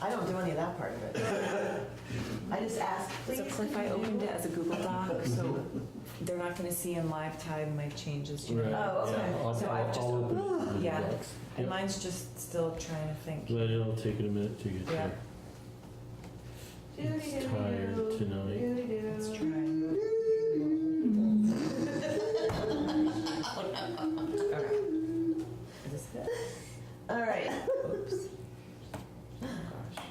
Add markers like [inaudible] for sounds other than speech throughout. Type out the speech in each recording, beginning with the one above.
I don't do any of that part of it. I just ask, please. So Cliff, I opened it as a Google Doc, so they're not gonna see in live time my changes. you know. Right, Oh, okay. yeah, I'll- So I've I'll- just- I'll open it. Yeah. And Yep. mine's just still trying to think. But it'll take it a minute to get Yeah. there. It's tired tonight. It's trying. [laughs] Okay. Is this it? All right. Oops. Oh, gosh.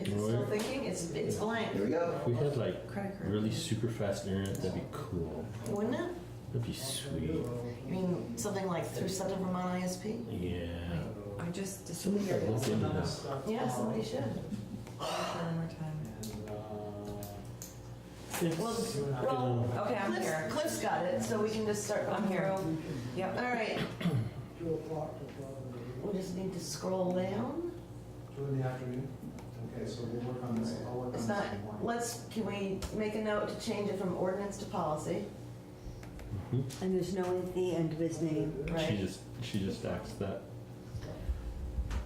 If it's still Roy? thinking, it's, it's blank. Here we go. If we had like Credit card. really super fast internet, that'd be cool. Wouldn't it? That'd be sweet. You mean something like through Central Vermont ISP? Yeah. I just Somebody disappeared. should look into this. Yeah, somebody should. One more time. It's, you well, know, Okay, I'm Cliff's- here. Cliff's got it, so we can just start I'm going here. through. Yep. All right, we just need to scroll down. Two in the afternoon? Okay, so we'll work on this, I'll work on this It's in not, the morning. let's, can we make a note to change it from ordinance to policy? And there's no at the end of his name. she Right? just she just asked that.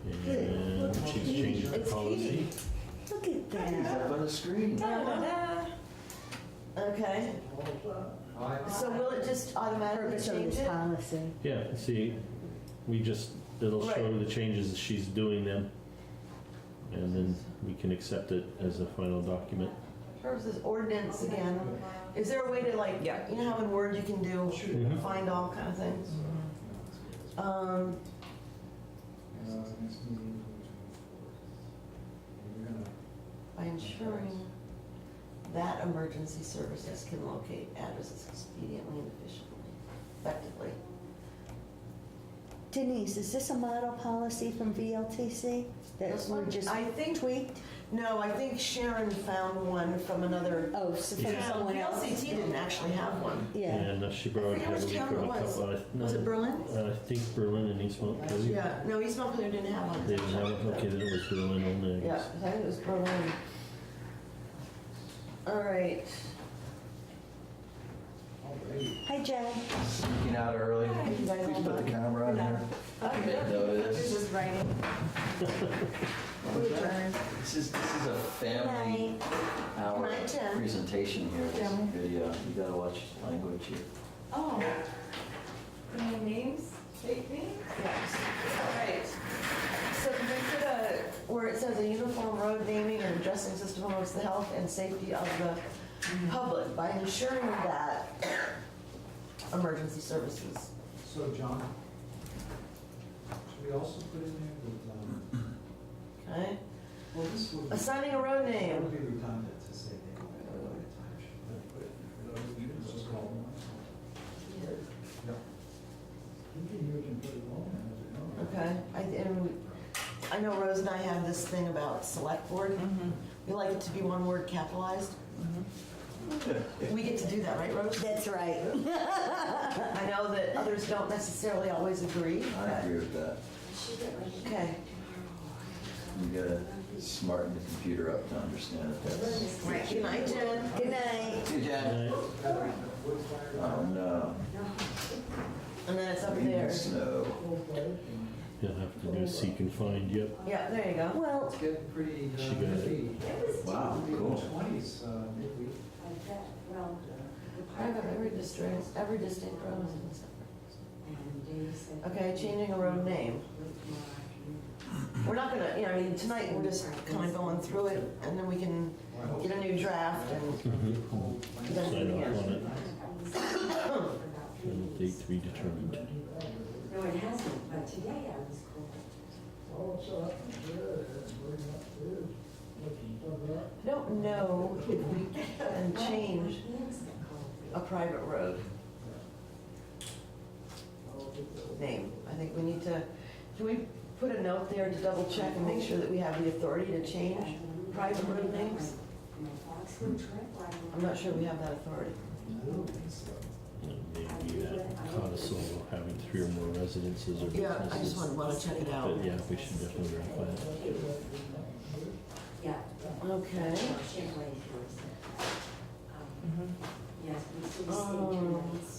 And she's changed the It's policy. Katie. Look at It's that. up on the screen. Da, da, da. Okay, Aye. so will it just automatically Purpose of change this it? policy. Yeah, see, we just, it'll show Right. the changes as she's doing them. And then we can accept it as a final document. Purposes ordinance again. Is there a way to like, Yeah. you know how in Word you can do, Mhm. find all kind of things? Mhm. Um, Uh, next meeting, we're gonna- by ensuring that emergency services can locate addresses expediently and efficiently, effectively. Denise, is this a model policy from VLTC that This we're one, just I think, tweaked? no, I think Sharon found one from another Oh, so from Yeah. someone else? VLCT didn't actually have one. Yeah. And uh, she I borrowed forget which heavily town from it a was. couple. I- no, Was it Berlin? uh, I think Berlin and East Mount Pleasant. Yeah, no, East Montpelier didn't have one. They didn't have, it. okay, then it was Berlin only, I Yeah, guess. I think it was Berlin. All right, Alrighty. Hi, Jen. Sneaking out early. Hi, you guys Please all put the done? camera on here. Oh, Make yeah. This notice. is writing. This is, this is a family Night. hour Night, Jen. presentation here, this Jen. video. You gotta watch language here. Oh. Any names? Fake names? yes. All right. So can we put a, where it says a uniform road naming and addressing system promotes the health and safety of the public by ensuring that [coughs] emergency services. So John, should we also put in there that, um, Okay? well, this would, that Assigning a road would name. be redundant to say they don't have a lot of time, should we put it in there? Let's just call them. Yeah. Okay. I, and I know Rose and I have this thing about select board. Mhm. We like it to be one word capitalized. Mhm. We get to do that, right, Rose? That's right. I know that others don't necessarily always agree. I agree with that. Okay. You gotta smarten the computer up to understand that that's. Good night, Jen. Good night. See you, Jen. Right? Oh, no. And then it's up Rain there. and Snow. You'll have to do seek and find, yep. Yeah, there you go. Well, It's getting pretty, She uh, got it. heavy. Wow, cool. Twenties, uh, midweek. I have every distinct, every distinct road is in this. Okay, changing a road name. We're not gonna, you know, I mean, tonight we're just kind of going through it and then we can Well, I hope get a new draft and Mm-hmm. Mhm. then do Sign it off on again. it. And date to be determined. No, it hasn't, but today I was cold. I don't know if we can change My hands got cold. a private road name. I think we need to, can we put a note there to double check and make sure that we have the authority to change private road names? My Foxwood trip, I I'm not sure we have that authority. I don't think so. And Uh, Maybe that codicil of having three or more residences or Yeah, I just businesses. want, want to check it out. But yeah, we should definitely verify that. Yeah. Okay. Shit, wait, here is it. Um, Mhm. Yes, we see the Oh. same trees.